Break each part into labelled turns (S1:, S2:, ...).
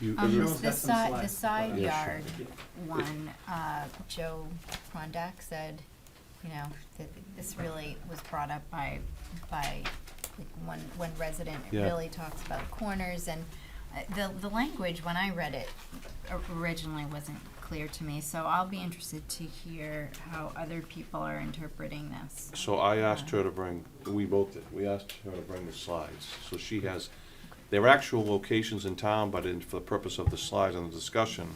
S1: You-
S2: Um,
S1: you-
S2: the side, the side
S1: Yeah, sure.
S2: yard one, uh, Joe Prondak said, you know, that this really was brought up by, by like one, one resident. It
S1: Yeah.
S2: really talks about corners and uh, the, the language, when I read it o- originally wasn't clear to me, so I'll be interested to hear how other people are interpreting this.
S1: So I asked her to bring, we both did, we asked her to bring the slides. So she has their actual locations in town, but in, for the purpose of the slides and the discussion,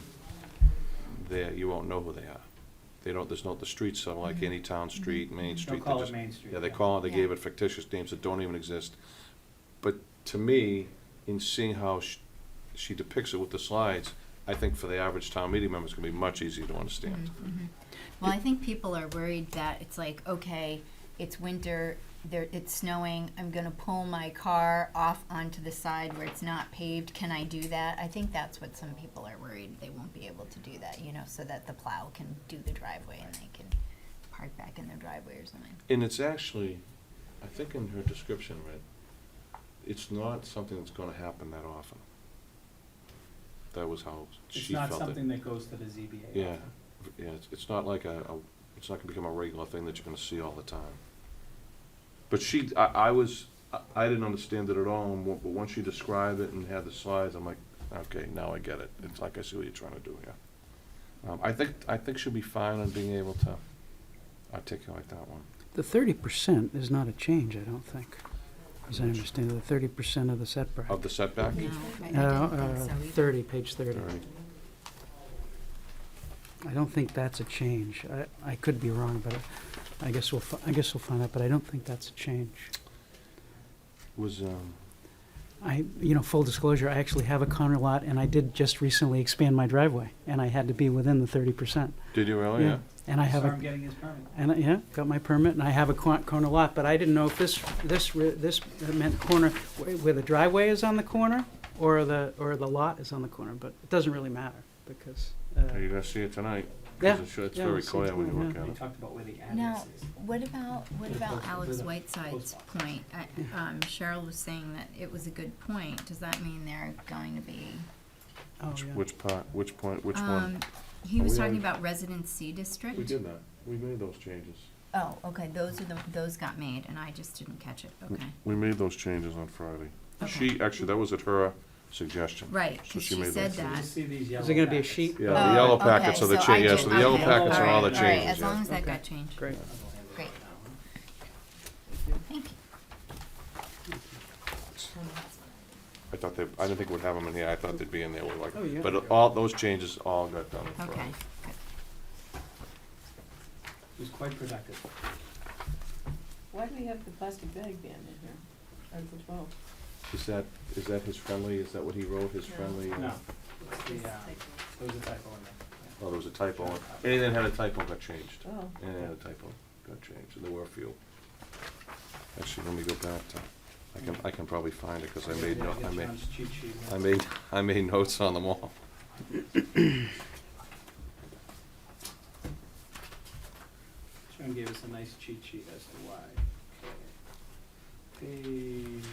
S1: there, you won't know who they are. They don't, there's no, the streets are like any town street, Main Street.
S3: They'll
S1: they
S3: call it
S1: just-
S3: Main Street.
S1: Yeah, they call it, they gave
S2: Yeah.
S1: it fictitious names that don't even exist. But to me, in seeing how sh- she depicts it with the slides, I think for the average town meeting member, it's gonna be much easier to
S2: Mm-hmm.
S1: understand.
S2: Well, I think people are worried that it's like, okay, it's winter, there, it's snowing, I'm gonna pull my car off onto the side where it's not paved, can I do that? I think that's what some people are worried, they won't be able to do that, you know, so that the plow can do the driveway and they can park back in their driveway or something.
S1: And it's actually, I think in her description, right, it's not something that's gonna happen that often. That was how
S3: It's
S1: she
S3: not
S1: felt it.
S3: something that goes to the ZBA.
S1: Yeah,
S3: often.
S1: yeah, it's, it's not like a, a- it's not gonna become a regular thing that you're gonna see all the time. But she, I, I was, I- I didn't understand it at all, and wa- but once she described it and had the slides, I'm like, okay, now I get it. It's like, I see what you're trying to do here. Um, I think, I think she'll be fine on being able to articulate that one.
S4: The thirty percent is not a change, I don't think, as I understand, the thirty percent of the setback.
S1: Of the setback?
S2: No, I I
S4: No,
S2: didn't
S4: uh,
S2: think so either.
S4: Thirty, page thirty.
S1: All right.
S4: I don't think that's a change. I, I could be wrong, but I- I guess we'll, fi- I guess we'll find out, but I don't think that's a change.
S1: Was, um,
S4: I, you know, full disclosure, I actually have a corner lot, and I did just recently expand my driveway, and I had to be within the thirty percent.
S1: did you really? Oh, Yeah.
S4: And I have
S3: Saw
S4: a
S3: him getting his permit.
S4: And, I- yeah, got my permit, and I have a cor- corner lot, but I didn't know if this, this, re- this meant corner, wh- where the driveway is on the corner, or the, or the lot is on the corner, but it doesn't really matter, because, uh,
S1: Are you gonna see it tonight? 'Cause
S4: Yeah,
S1: it's- It's
S4: yeah,
S1: very
S4: we'll see
S1: clear when you
S4: tonight,
S1: look at
S3: We
S1: it.
S3: talked about where the
S2: Now,
S3: address is.
S2: what about, what
S3: Yeah,
S2: about
S3: close-
S2: Alex
S3: close-
S2: Whiteside's
S3: close.
S2: point? I- um, Cheryl was saying that it was a good point, does that mean they're going to be?
S4: oh,
S1: Which-
S4: yeah.
S1: Which part, which point, which
S2: Um,
S1: one?
S2: he
S1: Are
S2: was
S1: we
S2: talking
S1: on-
S2: about residency district.
S1: We did that. We made those changes.
S2: Oh, okay, those are the, those got made, and I just didn't catch it, okay.
S1: We made those changes on Friday.
S2: Okay.
S1: She, actually, that was at her suggestion.
S2: Right,
S1: So
S2: 'cause
S1: she
S2: she
S1: made
S2: said
S1: those.
S3: So you
S2: that.
S3: see these yellow
S4: Is there gonna be a
S3: packets.
S4: sheet?
S1: Yeah, the yellow
S2: Oh,
S1: packets
S2: okay,
S1: are the
S2: so
S1: cha,
S2: I
S1: yeah,
S2: did-
S1: so the yellow
S2: okay,
S1: packets are all the
S2: alright, alright,
S1: changes,
S2: as long
S1: yeah.
S2: as that
S4: Okay.
S2: got changed.
S4: Great.
S2: Great. Thank you.
S1: I thought they, I didn't think we'd have them in here. I thought they'd be in there. We're
S4: Oh, yeah.
S1: like, but all, those changes all got done on
S2: Okay,
S1: Friday.
S2: good.
S3: It was quite productive.
S5: Why do we have the plastic bag ban in here? Article twelve.
S1: Is that, is that his friendly? Is that what he wrote, his
S5: No.
S1: friendly? uh,
S3: No, it's the, uh, it was a typo in there.
S1: Oh, there was a typo. Anything that had a typo got changed.
S5: Oh.
S1: Yeah, yeah, the typo got changed, and there were a few. Actually, let me go back to, I can, I can probably find it, because I made, no- I made,
S3: John's cheat sheet.
S1: I made, I made notes on them all.
S3: John gave us a nice cheat sheet as to why. Page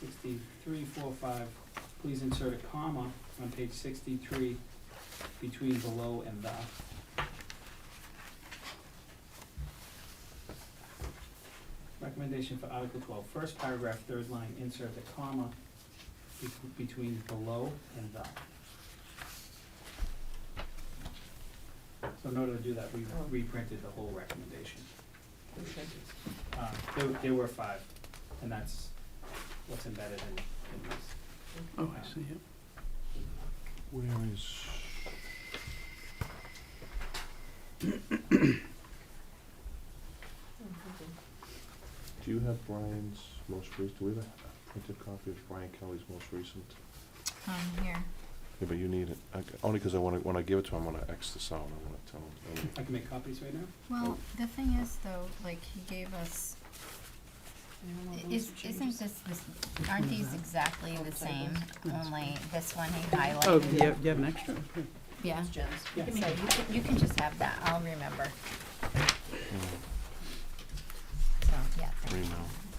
S3: sixty-three, four, five, please insert a comma on page sixty-three between below and the. Recommendation for Article twelve, first paragraph, third line, insert the comma bet- between below and the. So in order to do that, we
S5: Oh.
S3: reprinted the whole recommendation.
S5: Okay.
S3: Uh, there, there were five, and that's what's embedded in, in this.
S4: Oh, I see, yeah.
S1: Where is?
S5: I'm thinking,
S1: Do you have Brian's most recent, do we have a printed copy of Brian Kelly's most recent?
S2: Um, here,
S1: Yeah, but you need it, I c- only because I want to, when I give it to him, I want to X this out, I want to tell him. I wanna-
S3: I can make copies right now?
S2: well, the thing is though, like, he gave us,
S5: anyone want those
S2: is,
S5: to change?
S2: isn't this, this, aren't these exactly the same, only this one he
S4: Oh,
S2: highlighted?
S4: do you have, you have an extra?
S2: Yeah,
S5: It's Jen's.
S2: so
S3: Yeah.
S2: you can, you can just have that, I'll remember,
S1: Mm,
S2: so, yeah, thank you.
S1: Three now.